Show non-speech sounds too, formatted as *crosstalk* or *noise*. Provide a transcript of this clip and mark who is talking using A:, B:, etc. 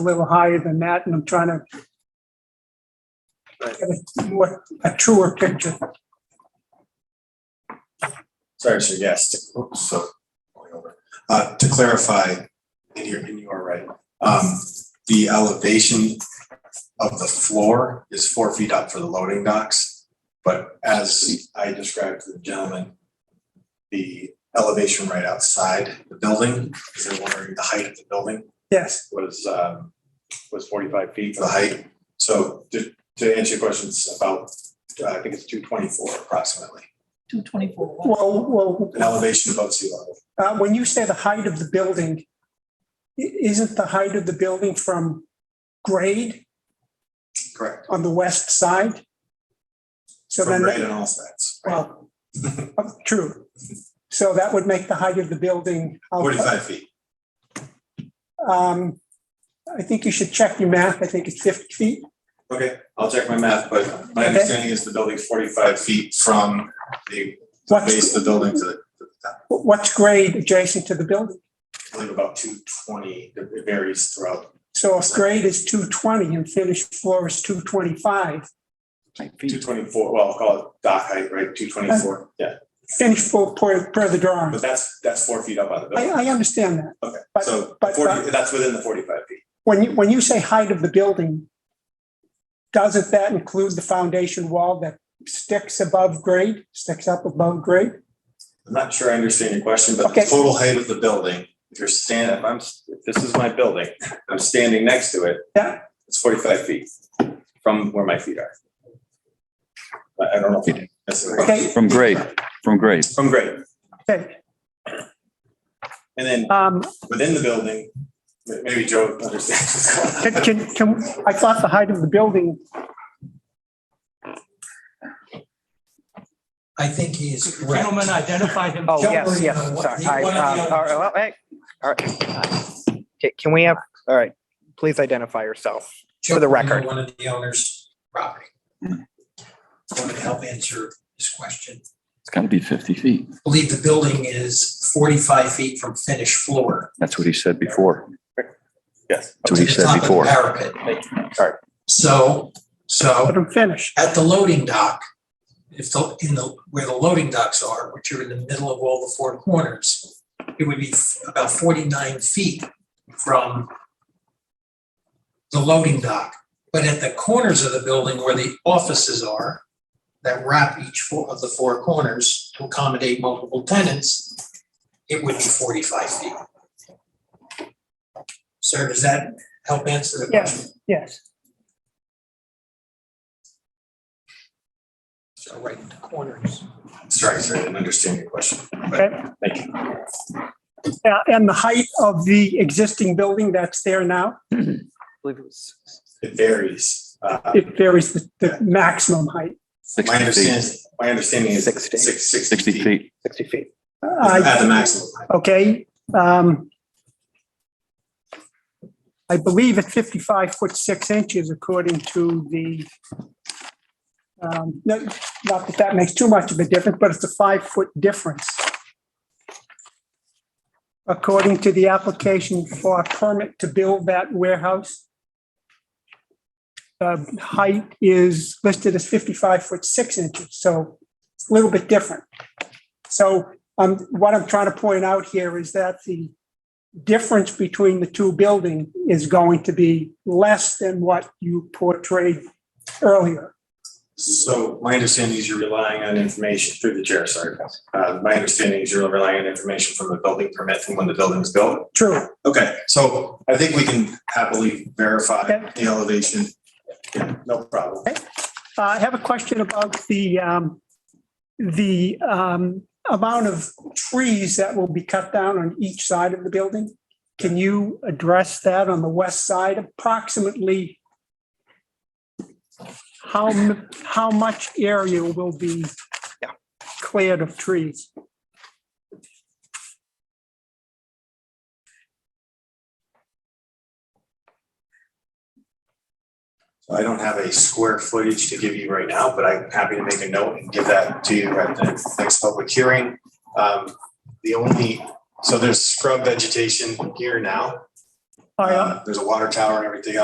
A: a little higher than that, and I'm trying to
B: Right.
A: get a more, a truer picture.
B: Sorry, sir, yes, to- oops, so, going over. Uh, to clarify, and you're, and you are right, um, the elevation of the floor is four feet up for the loading docks, but as I described to the gentleman, the elevation right outside the building, because they're wondering the height of the building
A: Yes,
B: was, um, was forty-five feet. The height, so to, to answer your questions about, uh, I think it's two twenty-four approximately,
C: Two twenty-four.
A: well, well,
B: an elevation above sea level.
A: uh, when you say the height of the building, i- isn't the height of the building from grade
B: Correct.
A: on the west side? So
B: From
A: then,
B: right
A: that-
B: on all sides. right? *laughs*
A: well, uh, true. So that would make the height of the building. how-
B: Forty-five feet.
A: Um, I think you should check your math. I think it's 50 feet.
B: Okay, I'll check my math, but my
A: Okay.
B: understanding is the building's forty-five feet from the the
A: What's,
B: base of the building to the to the top.
A: what's grade adjacent to the building?
B: I believe about two twenty, it varies throughout.
A: So if grade is two twenty and finished floor is two twenty-five,
B: Two twenty-four, well, I'll call it dock height, right, two
A: Uh,
B: twenty-four, yeah.
A: finished floor per, per the drawing.
B: But that's, that's four feet up on the
A: I,
B: building.
A: I understand that.
B: Okay,
A: but-
B: so
A: but-
B: forty, that's within the forty-five feet.
A: When you, when you say height of the building, doesn't that include the foundation wall that sticks above grade, sticks up above grade?
B: I'm not sure I understand your question, but the
A: Okay.
B: total height of the building, if you're standing, if I'm, s- if this is my building, I'm standing next to it.
A: Yeah.
B: It's forty-five feet from where my feet are. I, I don't know. if you- that's what I-
A: Okay,
D: From grade, from grade.
B: From grade,
A: okay.
B: and then
A: Um,
B: within the building, m- maybe Joe understands. what's
A: can,
B: going on.
A: can, can- I thought the height of the building,
E: I think he is correct.
F: Gentlemen, identify
E: *laughs*
F: himself.
G: Oh, yes, yes, I'm sorry. I, um, all right, well, hey, all right. Okay, Can we have, all right, please identify yourself. for the record. Hmm.
E: One of the owners' property. Someone to help answer this question.
D: It's got to be 50 feet.
E: I Believe the building is forty-five feet from finished floor.
D: That's what he said before.
B: Yes.
D: That's what he
E: to the
D: said
E: top of the
D: before.
E: Parapet.
D: Sorry.
E: So, so
A: let him finish.
E: at the loading dock, if the, in the, where the loading docks are, which are in the middle of all the four corners, it would be f- about forty-nine feet from the loading dock. But at the corners of the building where the offices are, that wrap each four of the four corners to accommodate multiple tenants, it would be forty-five feet. Sir, does that help answer the question?
A: Yes, yes.
E: So right in the corners.
B: Sorry, sorry, I didn't understand your question.
A: Okay.
B: Thank you.
A: Uh, And the height of the existing building that's there now,
G: believe it was
B: It varies. Uh,
A: it varies the, the maximum height.
B: My
D: 60 feet.
B: understanding, my understanding is six,
G: Sixty.
B: sixty
D: 60
B: feet
D: feet.
G: 60 feet.
A: I-
B: at the maximum.
A: okay? Um I believe it's 55 foot 6 inches according to the, um no, not that that makes too much of a difference, but it's a five-foot difference. According to the application for a permit to build that warehouse, the height is listed as 55 foot 6 inches, so it's a little bit different. So um, what I'm trying to point out here is that the difference between the two buildings is going to be less than what you portrayed earlier.
B: So my understanding is you're relying on information through the chair, sorry. Uh, my understanding is you're relying on information from the building permit from when the building was built.
A: True.
B: Okay, so I think we can happily verify
A: Okay.
B: the elevation. Yeah, no problem.
A: Uh, I have a question about the, um, the, um, amount of trees that will be cut down on each side of the building. Can you address that on the west side approximately? How, m- how much area will be
G: Yeah.
A: cleared of trees?
B: So I don't have a square footage to give you right now, but I'm happy to make a note and give that to you at the next public hearing. Um, The only, so there's scrub vegetation here now.
A: High up.
B: Uh, There's a water tower and everything else.